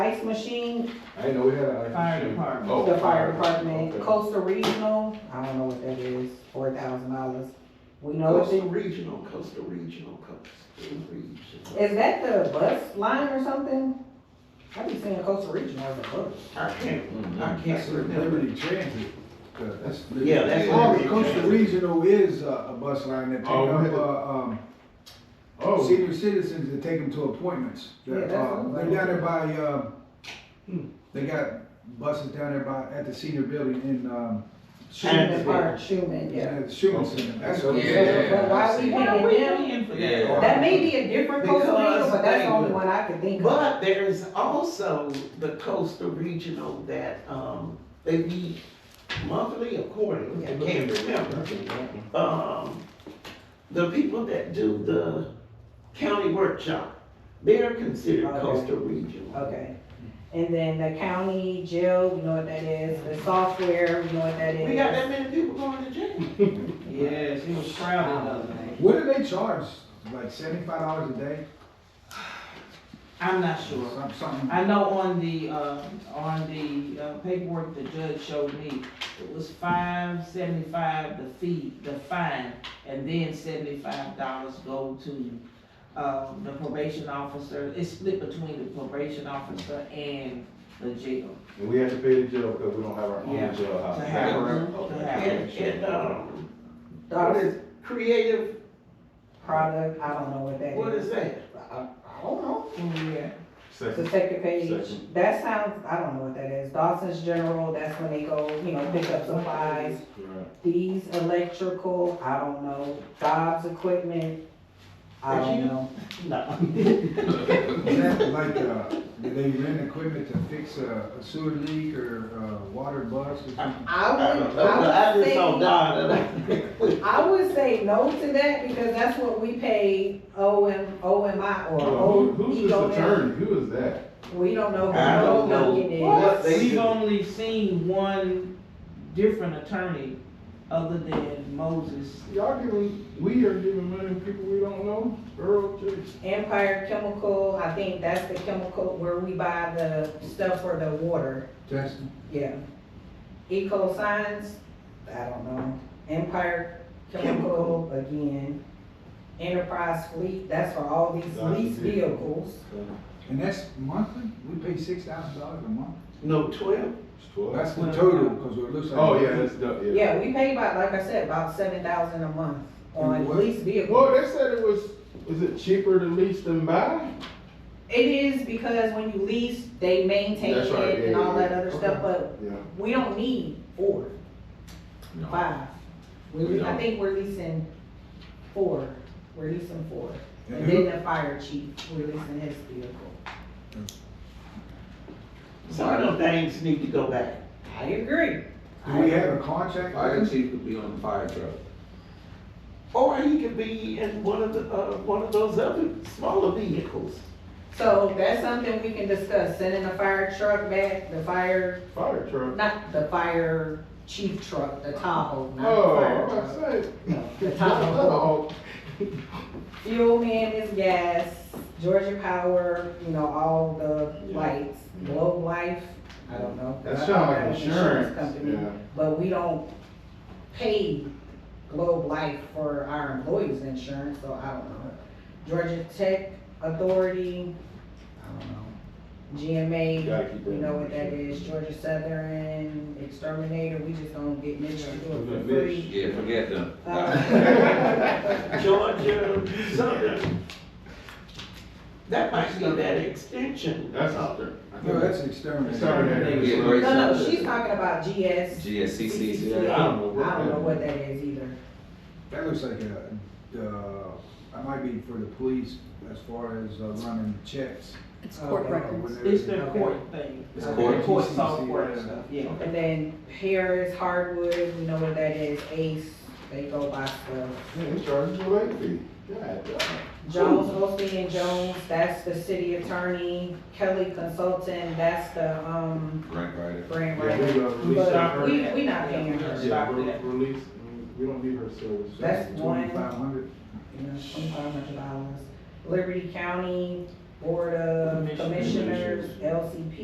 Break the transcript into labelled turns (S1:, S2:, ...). S1: ice machine,
S2: I know we had an.
S3: Fire department.
S2: Oh,
S1: the fire department,
S2: okay.
S1: Coastal Regional, I don't know what that is, four thousand dollars. We know it's,
S2: Coastal Regional, Coastal Regional, Coastal Regional.
S1: is that the bus line or something? I be seeing Coastal Regional as a bus.
S3: I can't, I
S2: That's
S3: can't remember.
S4: Liberty Transit. uh, That's.
S3: Yeah, that's
S4: Oh,
S3: Liberty
S4: Coastal
S3: Transit.
S4: Regional is a, a bus line that take
S2: Oh,
S4: up,
S2: really?
S4: uh, um,
S2: Oh,
S4: senior citizens that take them to appointments.
S1: Yeah,
S4: They're,
S1: that's
S4: uh,
S1: what
S4: they're
S1: I'm
S4: down there by, uh,
S3: Hmm.
S4: they got buses down there by, at the senior building in, um,
S1: Schuman Park, Schuman, yeah.
S4: at Schuman Center. That's what
S1: So,
S4: it's-
S2: Oh, Yeah,
S1: but why
S2: I
S1: we
S2: see.
S3: Why are we
S1: paying them?
S3: paying for
S2: Yeah.
S3: that?
S1: That may be a different Coastal Regional,
S3: Because
S1: but that's
S3: they-
S1: the only one I could think of.
S3: But there is also the coastal regional that, um, they meet monthly or quarterly, I can't remember. Um, the people that do the county workshop, they're considered
S1: Okay.
S3: coastal regional.
S1: Okay, and then the county jail, we know what that is, the software, we know what that is.
S3: We got that many people going to jail. Yes, he was crowded the
S1: Um,
S3: other day.
S4: What do they charge? Like seventy-five dollars a day?
S5: I'm not sure.
S4: Some- Something,
S5: I know on the, uh, on the uh, paperwork the judge showed me, it was five seventy-five the fee, the fine, and then seventy-five dollars go to, uh, the probation officer. It's split between the probation officer and the jail.
S2: And we have to pay the jail because we don't have our
S5: Yeah.
S2: own jailhouse.
S5: To have
S3: her-
S2: Okay.
S5: to have
S3: And, and,
S2: uh,
S3: um, what
S1: Dog
S3: is creative,
S1: product, I don't know what that is.
S3: what is that?
S1: I, I don't know.
S5: Yeah.
S1: It's the
S2: Second.
S1: second page,
S2: Second.
S1: that sounds, I don't know what that is, Dawson's General, that's when they go, you know, pick up supplies.
S2: Right.
S1: These electrical, I don't know, Dobbs Equipment, I
S3: Did
S1: don't
S3: you-
S1: know.
S3: No.
S4: is that like, uh, do they rent equipment to fix a a sewer leak or a water bus or something?
S1: I
S3: I
S1: would,
S3: don't know, but I
S1: I would
S3: just saw
S1: say,
S3: Donna.
S1: I would say no to that, because that's what we pay O M, O M I or O
S2: Who's
S1: E
S2: this
S1: O M.
S2: attorney? Who is that?
S1: We don't know who
S3: I don't
S1: Joe
S3: know
S1: Duncan is.
S3: what they
S5: We've
S3: do.
S5: only seen one different attorney other than Moses.
S2: Y'all giving, we are giving money to people we don't know, Earl J.
S1: Empire Chemical, I think that's the chemical where we buy the stuff for the water,
S4: Justin?
S1: yeah. Eco Science, I don't know. Empire Chemical, again. Enterprise Fleet, that's for all these
S2: That's
S1: leased
S2: it.
S1: vehicles.
S4: And that's monthly? We pay six thousand dollars a month?
S3: No, twelve,
S4: That's the total, because it looks like.
S2: Oh, yeah, that's, the- yeah.
S1: Yeah, we pay about, like I said, about seven thousand a month
S4: And
S1: on
S4: what-
S1: leased
S2: Well,
S1: vehicles.
S2: they said it was, is it cheaper to lease than buy?
S1: It is because when you lease, they maintain
S2: That's right,
S1: it and
S2: yeah,
S1: all that
S2: yeah.
S1: other stuff, but
S2: Yeah.
S1: we don't need four, five.
S2: We
S1: I
S2: don't.
S1: think we're leasing four, we're leasing four, and then the fire chief, we're leasing his vehicle.
S3: some of the things need to go back.
S1: I agree.
S4: Do we have a contract?
S6: Fire chief could be on the fire truck.
S3: Or he could be in one of the, uh, one of those other smaller vehicles.
S1: So that's something we can discuss, sending the fire truck back, the fire,
S2: Fire truck.
S1: not the fire chief truck, the Tahoe, not
S2: Oh,
S1: the
S2: I
S1: fire
S2: was
S1: truck.
S2: about to say.
S1: No, The Tahoe.
S2: Oh,
S1: Fuel man is gas, Georgia Power, you know, all the
S2: Yeah.
S1: lights, Globe Life, I don't know.
S2: That
S1: I- I
S2: sound
S1: have
S2: like
S1: an
S2: insurance,
S1: company.
S2: yeah.
S1: but we don't pay Globe Life for our employees' insurance, so I don't know. Georgia Tech Authority, I don't know.
S2: You
S1: GMA,
S2: gotta keep
S1: we
S2: that
S1: know
S2: in
S1: what that
S2: mind.
S1: is, Georgia Southern, Exterminator, we just don't get Mitch to do it for
S2: Mitch.
S1: free.
S6: Yeah, forget them.
S1: Uh,
S3: Georgia, Southern. That might be that extension.
S2: That's out there.
S4: No, that's exterminator.
S2: Exterminator.
S6: Yeah,
S2: Great
S1: No, no, she's talking about GS,
S6: GSCC.
S2: I don't know what.
S1: I don't know
S2: that-
S1: what that is either.
S4: That looks like a, uh, I might be for the police as far as uh, running checks.
S7: It's
S1: Oh,
S7: court
S1: okay.
S7: records.
S5: It's the court thing.
S6: It's court.
S5: Court software and stuff, yeah.
S1: And then Harris Hardwood, we know what that is, Ace, they go by stuff.
S2: Man, they charging you a late fee. God damn.
S1: Jones, Osteen and Jones, that's the city attorney, Kelly Consultant, that's the, um,
S6: Right, right.
S1: grant
S2: Yeah, we
S1: writer.
S2: gonna release
S1: But
S2: her.
S1: we, we not paying her.
S2: Yeah,
S5: Stop
S2: we're
S5: that.
S2: release, we don't need her service.
S1: That's one.
S4: Twenty-five hundred.
S1: You know, twenty-five hundred dollars. Liberty County Board of
S5: Commissioners.
S1: Commissioners, LCP.